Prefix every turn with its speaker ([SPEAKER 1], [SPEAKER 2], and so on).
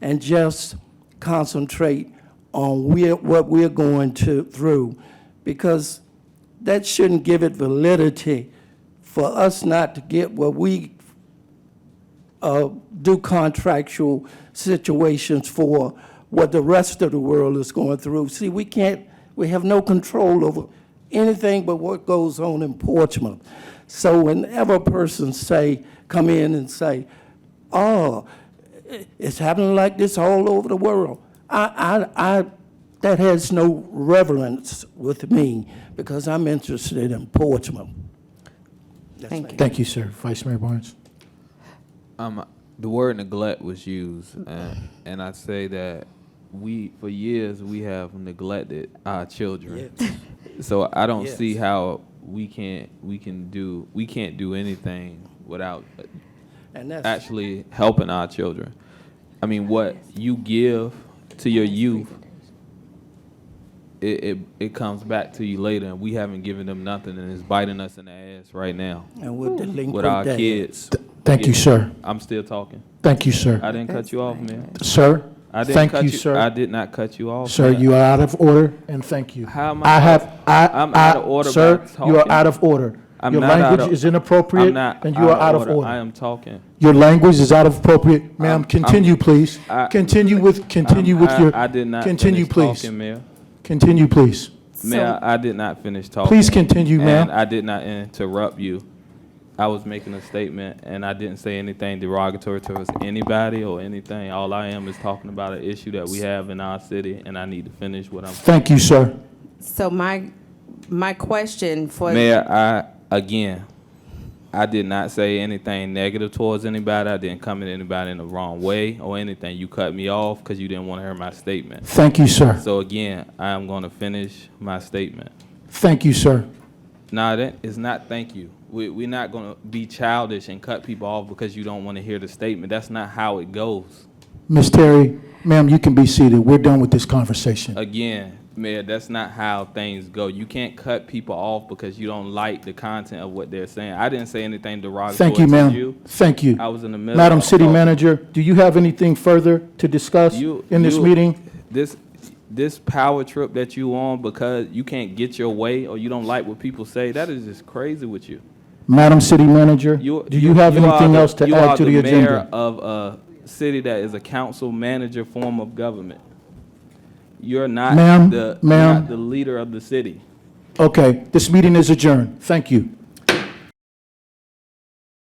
[SPEAKER 1] and just concentrate on we're, what we're going to, through, because that shouldn't give it validity for us not to get what we uh, do contractual situations for what the rest of the world is going through. See, we can't, we have no control over anything but what goes on in Portsmouth. So whenever a person say, come in and say, oh, i- it's happening like this all over the world, I, I, I, that has no reverence with me because I'm interested in Portsmouth. That's
[SPEAKER 2] Thank
[SPEAKER 1] my-
[SPEAKER 3] Thank you, sir. Vice Mayor Barnes.
[SPEAKER 4] Um, the word neglect was used, and, and I say that we, for years, we have neglected our children. So I don't see
[SPEAKER 1] Yes.
[SPEAKER 4] how we can't we can do we can't do anything without uh,
[SPEAKER 1] And that's.
[SPEAKER 4] actually helping our children. I mean, what you give to your youth, it, it it comes back to you later, and we haven't given them nothing, and it's biting us in the ass right now
[SPEAKER 1] And with delinquent
[SPEAKER 4] with our
[SPEAKER 1] dads.
[SPEAKER 4] kids.
[SPEAKER 3] Thank you,
[SPEAKER 4] Yeah.
[SPEAKER 3] sir.
[SPEAKER 4] I'm still talking.
[SPEAKER 3] Thank you, sir.
[SPEAKER 4] I didn't cut you off, man.
[SPEAKER 3] Sir,
[SPEAKER 4] I didn't
[SPEAKER 3] thank
[SPEAKER 4] cut
[SPEAKER 3] you,
[SPEAKER 4] I
[SPEAKER 3] sir.
[SPEAKER 4] did not cut you off.
[SPEAKER 3] Sir,
[SPEAKER 4] man.
[SPEAKER 3] you are out of order, and thank you.
[SPEAKER 4] How am I
[SPEAKER 3] I
[SPEAKER 4] out-
[SPEAKER 3] have, I,
[SPEAKER 4] I'm out of
[SPEAKER 3] I-
[SPEAKER 4] order
[SPEAKER 3] sir,
[SPEAKER 4] by
[SPEAKER 3] you are
[SPEAKER 4] talking.
[SPEAKER 3] out of order.
[SPEAKER 4] I'm
[SPEAKER 3] Your
[SPEAKER 4] not out
[SPEAKER 3] language
[SPEAKER 4] of-
[SPEAKER 3] is
[SPEAKER 4] I'm
[SPEAKER 3] inappropriate,
[SPEAKER 4] not
[SPEAKER 3] and you are out of
[SPEAKER 4] I
[SPEAKER 3] order.
[SPEAKER 4] am talking.
[SPEAKER 3] Your language is out of appropriate. Ma'am,
[SPEAKER 4] I'm-
[SPEAKER 3] continue,
[SPEAKER 4] I'm-
[SPEAKER 3] please.
[SPEAKER 4] I-
[SPEAKER 3] Continue with, continue
[SPEAKER 4] I'm-
[SPEAKER 3] with
[SPEAKER 4] I-
[SPEAKER 3] your.
[SPEAKER 4] I did not
[SPEAKER 3] Continue,
[SPEAKER 4] finish
[SPEAKER 3] please.
[SPEAKER 4] talking, Mayor.
[SPEAKER 3] Continue, please.
[SPEAKER 4] Mayor,
[SPEAKER 2] So,
[SPEAKER 4] I did not finish talking.
[SPEAKER 3] Please continue,
[SPEAKER 4] And
[SPEAKER 3] ma'am.
[SPEAKER 4] I did not interrupt you. I was making a statement, and I didn't say anything derogatory towards anybody or anything. All I am is talking about an issue that we have in our city, and I need to finish what I'm.
[SPEAKER 3] Thank you, sir.
[SPEAKER 2] so my, my question for.
[SPEAKER 4] Mayor, I, again, I did not say anything negative towards anybody. I didn't come at anybody in the wrong way or anything. You cut me off because you didn't want to hear my statement.
[SPEAKER 3] Thank you, sir.
[SPEAKER 4] So again, I am going to finish my statement.
[SPEAKER 3] Thank you, sir.
[SPEAKER 4] Nah, that is not thank you. We, we're not going to be childish and cut people off because you don't want to hear the statement. That's not how it goes.
[SPEAKER 3] Ms. Terry, ma'am, you can be seated. We're done with this conversation.
[SPEAKER 4] Again, Mayor, that's not how things go. You can't cut people off because you don't like the content of what they're saying. I didn't say anything derogatory
[SPEAKER 3] Thank you,
[SPEAKER 4] to
[SPEAKER 3] ma'am. Thank you.
[SPEAKER 4] I was in the middle.
[SPEAKER 3] Madam
[SPEAKER 4] of
[SPEAKER 3] City
[SPEAKER 4] talking.
[SPEAKER 3] Manager, do you have anything further to discuss
[SPEAKER 4] You-
[SPEAKER 3] in this
[SPEAKER 4] you-
[SPEAKER 3] meeting?
[SPEAKER 4] This, this power trip that you on because you can't get your way or you don't like what people say, that is just crazy with you.
[SPEAKER 3] Madam City Manager,
[SPEAKER 4] You-
[SPEAKER 3] do you have
[SPEAKER 4] are
[SPEAKER 3] anything
[SPEAKER 4] the-
[SPEAKER 3] else to
[SPEAKER 4] you
[SPEAKER 3] add
[SPEAKER 4] are
[SPEAKER 3] to the
[SPEAKER 4] mayor
[SPEAKER 3] agenda?
[SPEAKER 4] Of a city that is a council manager form of government. You're not
[SPEAKER 3] Ma'am,
[SPEAKER 4] the, you're
[SPEAKER 3] ma'am.
[SPEAKER 4] not the leader of the city.
[SPEAKER 3] Okay, this meeting is adjourned. Thank you.